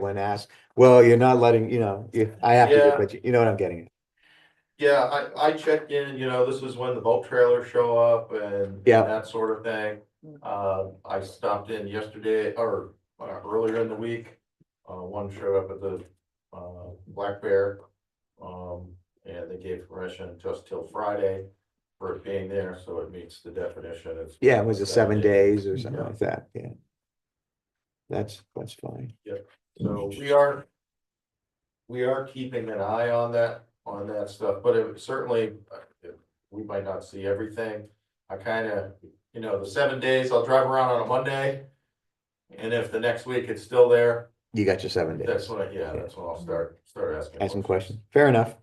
when asked, well, you're not letting, you know, you- I have to, do it," Yeah. but you- you know what I'm getting at. Yeah, I, I check in, you know, this is when the boat trailers show up and Yeah. that sort of thing. Uh, I stopped in yesterday or uh, earlier in the week. Uh, one showed up at the, uh, Black Bear. Um, and they gave permission to us till Friday for it being there, so it meets the definition. It's- Yeah, it was the seven days or something Yeah. like that, yeah. That's, that's fine. So we are. We are keeping an eye on that, on that stuff, but it certainly, uh, we might not see everything. I kinda, you know, the seven days, I'll drive around on a Monday. And if the next week it's still there, You got your seven days. that's when, I yeah, that's when I'll start, start asking. Ask some questions. Fair enough.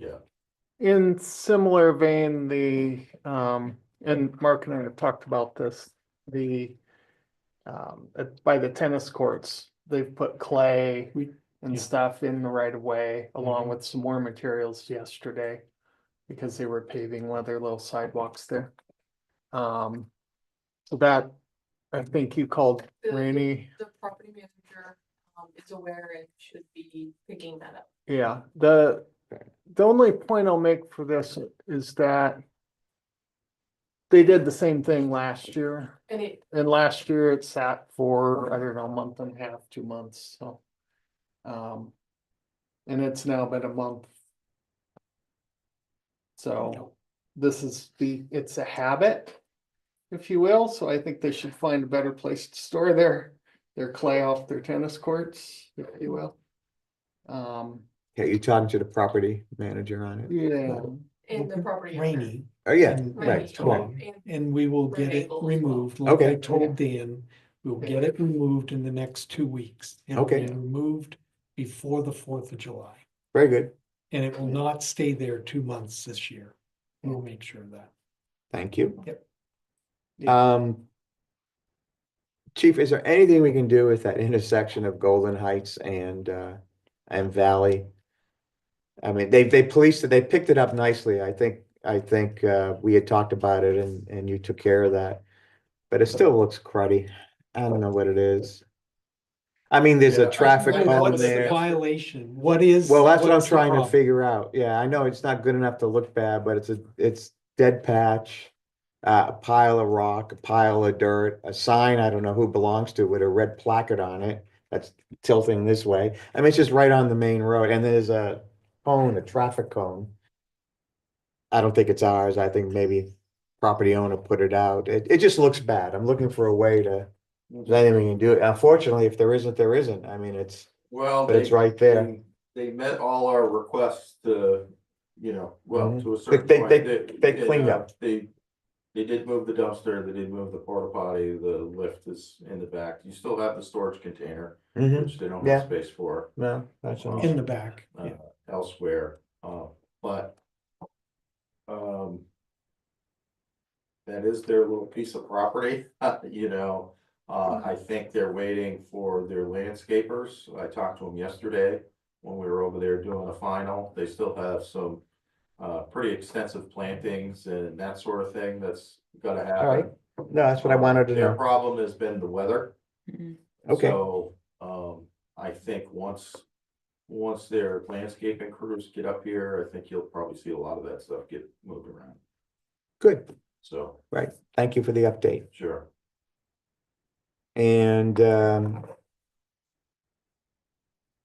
In similar vein, the, um, and Mark and I have talked about this, the. Um, at- by the tennis courts, they've put clay We- and yeah. Mm-hmm. stuff in the right of way along with some more materials yesterday. Because they were paving one of their little sidewalks there. Um, so that, I think you called The- the- Rainy. the property manager um is aware and should be picking that up. Yeah, the, Fair. the only point I'll make for this is that. They did the same thing last year, And it, and last year it sat for, I don't know, a month and a half, two months, so. Um, and it's now been a month. So this is the, it's a habit, if you will, so I think they should find a better place to store their, their clay off their tennis courts, if you will. Um. Okay, you're talking to the property manager on it? Yeah, Um, and the property. owner. Rainy. Oh, yeah, and- Rainy, right, come on. and- And we will get it Removable. removed, like I Okay. told Dan, we'll get it removed in the next two weeks. It'll Okay. be Removed before the fourth of July, very good. and it will not stay there two months this year. We'll make sure of that. Thank you. Yep. Um. Chief, is there anything we can do with that intersection of Golden Heights and uh and Valley? I mean, they they policed it, they picked it up nicely. I think, I think uh we had talked about it and and you took care of that. But it still looks cruddy. I don't know what it is. I mean, there's Yeah, a I- traffic I- cone What's the there. violation? What is? Well, that's what I'm what's the trying to problem? figure out. Yeah, I know it's not good enough to look bad, but it's a, it's dead patch. Uh, a pile of rock, a pile of dirt, a sign, I don't know who belongs to with a red placard on it. That's tilting this way. I mean, it's just right on the main road and there's a cone, a traffic cone. I don't think it's ours. I think maybe property owner put it out. It, it just looks bad. I'm looking for a way to. Mm-hmm. There's anything we can do. Unfortunately, if there isn't, there isn't. I mean, it's, Well. but it's they- right there. they- They met all our requests to, you know, well, Mhm. to a certain they- point. they- they yeah, cleaned up. They, they did move the dumpster, they did move the porta potty, the lift is in the back. You still have the storage container, Mm-hmm. Mhm. which they don't Yeah. have space for No, that's all. In the back, Uh, yeah. elsewhere, uh, but. Um. That is their little piece of property, you know, uh, I think they're waiting for their landscapers, I talked to them yesterday. When we were over there doing the final, they still have some, uh, pretty extensive plantings and that sort of thing that's gotta happen. Alright, No, that's what I wanted to Their know. problem has been the weather. Okay. So, um, I think once, once their landscaping crews get up here, I think you'll probably see a lot of that stuff get moved around. Good. So, Thank you for the update. sure. And um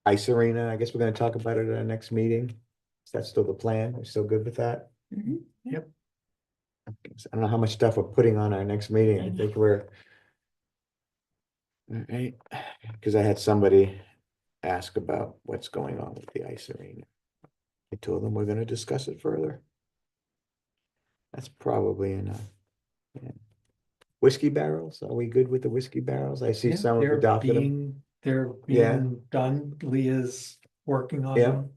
Ice Arena, I guess we're gonna talk about it at our next meeting. Is that still the plan? We're still good with that? Yep. I don't know how much stuff we're putting on our next meeting. I Mhm. think we're all right, because I had somebody ask about what's going on with the ice arena. I told them we're gonna discuss it further. That's probably enough. Yeah. Whiskey barrels, are we good with the whiskey barrels? I see Yeah, some have they're adopted them. Is being- They're Yeah. being done, Leah's working on Yeah. them.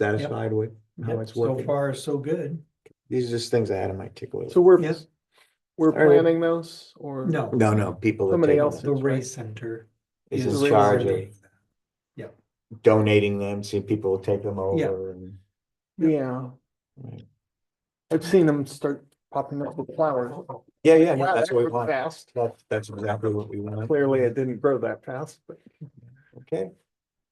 Satisfied with how Yep, it's So working. far, so good. These are just things I had on my tickle. list. so we're, Yeah. we're All right. planning those or? No. No, no, people. are Somebody taking else them. The That's right. race center. Is is in charge of coordinating that. donating them, seeing people take them over and. Yeah. Yeah, Right. I've seen them start popping up with flowers. Yeah, yeah, yeah, Wow, that's that what we grew want. Fast, That's, that's exactly what we want. clearly it didn't grow that fast, but Okay,